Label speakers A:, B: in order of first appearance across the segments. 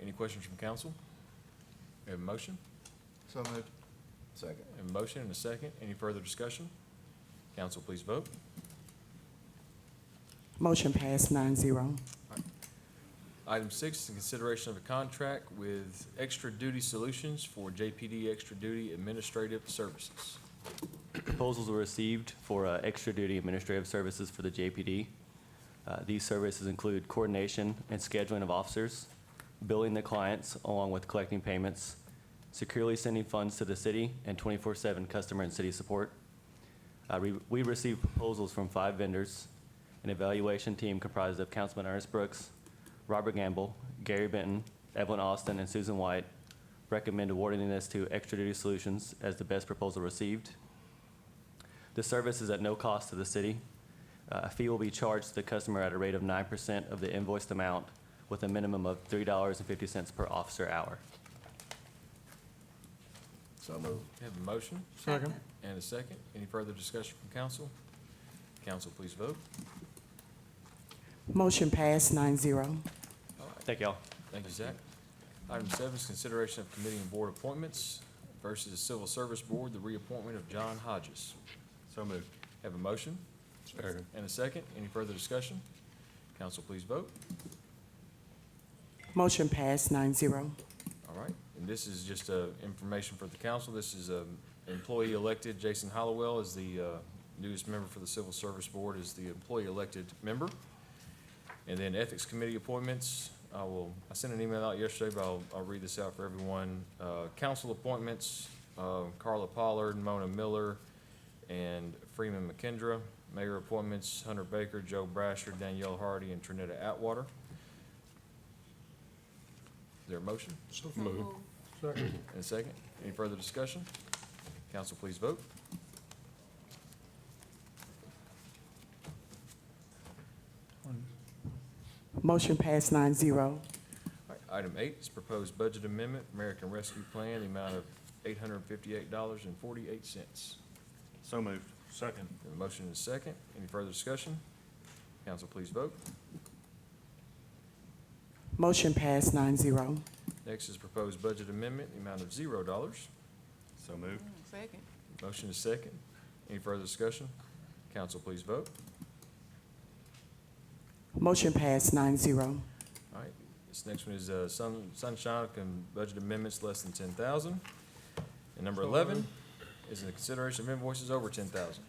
A: Any questions from council? We have a motion,
B: So moved.
C: Second.
A: We have a motion and a second. Any further discussion? Council, please vote.
D: Motion passed nine zero.
A: Item six, is in consideration of a contract with Extra Duty Solutions for JPD Extra Duty Administrative Services.
E: Proposals were received for uh, extra duty administrative services for the JPD. Uh, These services include coordination and scheduling of officers, billing the clients along with collecting payments, securely sending funds to the city, and 24/7 customer and city support. Uh, we- We received proposals from five vendors, an evaluation team comprised of Councilman Ernest Brooks, Robert Gamble, Gary Benton, Evelyn Austin, and Susan White, recommend awarding this to Extra Duty Solutions as the best proposal received. The service is at no cost to the city. Uh, A fee will be charged to the customer at a rate of 9% of the invoiced amount with a minimum of $3.50 per officer hour.
C: So moved.
A: We have a motion
B: Second.
A: and a second. Any further discussion from council? Council, please vote.
D: Motion passed nine zero.
E: Thank y'all.
A: Thank you, Zach. Item seven is consideration of committee and board appointments versus Civil Service Board, the reappointment of John Hodges.
B: So moved.
A: Have a motion
B: Second.
A: and a second. Any further discussion? Council, please vote.
D: Motion passed nine zero.
A: All right, and this is just, uh, information for the council. This is, um, employee elected. Jason Hollowell is the, uh, newest member for the Civil Service Board, is the employee elected member. And then Ethics Committee appointments, I will, I sent an email out yesterday, but I'll, I'll read this out for everyone. Uh, council appointments, uh, Carla Pollard, Mona Miller, and Freeman McKendra. Mayor appointments, Hunter Baker, Joe Brasher, Danielle Hardy, and Trinetta Atwater. Is there a motion?
B: So moved. Second.
A: And a second. Any further discussion? Council, please vote.
D: Motion passed nine zero.
A: All right, Item eight is proposed budget amendment, American Rescue Plan, the amount of eight hundred and fifty-eight dollars and forty-eight cents.
B: So moved. Second.
A: A motion and a second. Any further discussion? Council, please vote.
D: Motion passed nine zero.
A: Next is proposed budget amendment, the amount of zero dollars.
B: So moved.
F: Second.
A: Motion is second. Any further discussion? Council, please vote.
D: Motion passed nine zero.
A: All right, this next one is uh, Sun Sunshine can budget amendments less than ten thousand. And number eleven is in the consideration of invoices over ten thousand.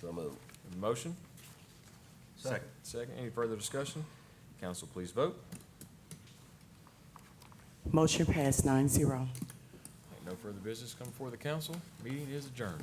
C: So moved.
A: Motion,
B: Second.
A: second, any further discussion? Council, please vote.
D: Motion passed nine zero.
A: No further business come before the council. Meeting is adjourned.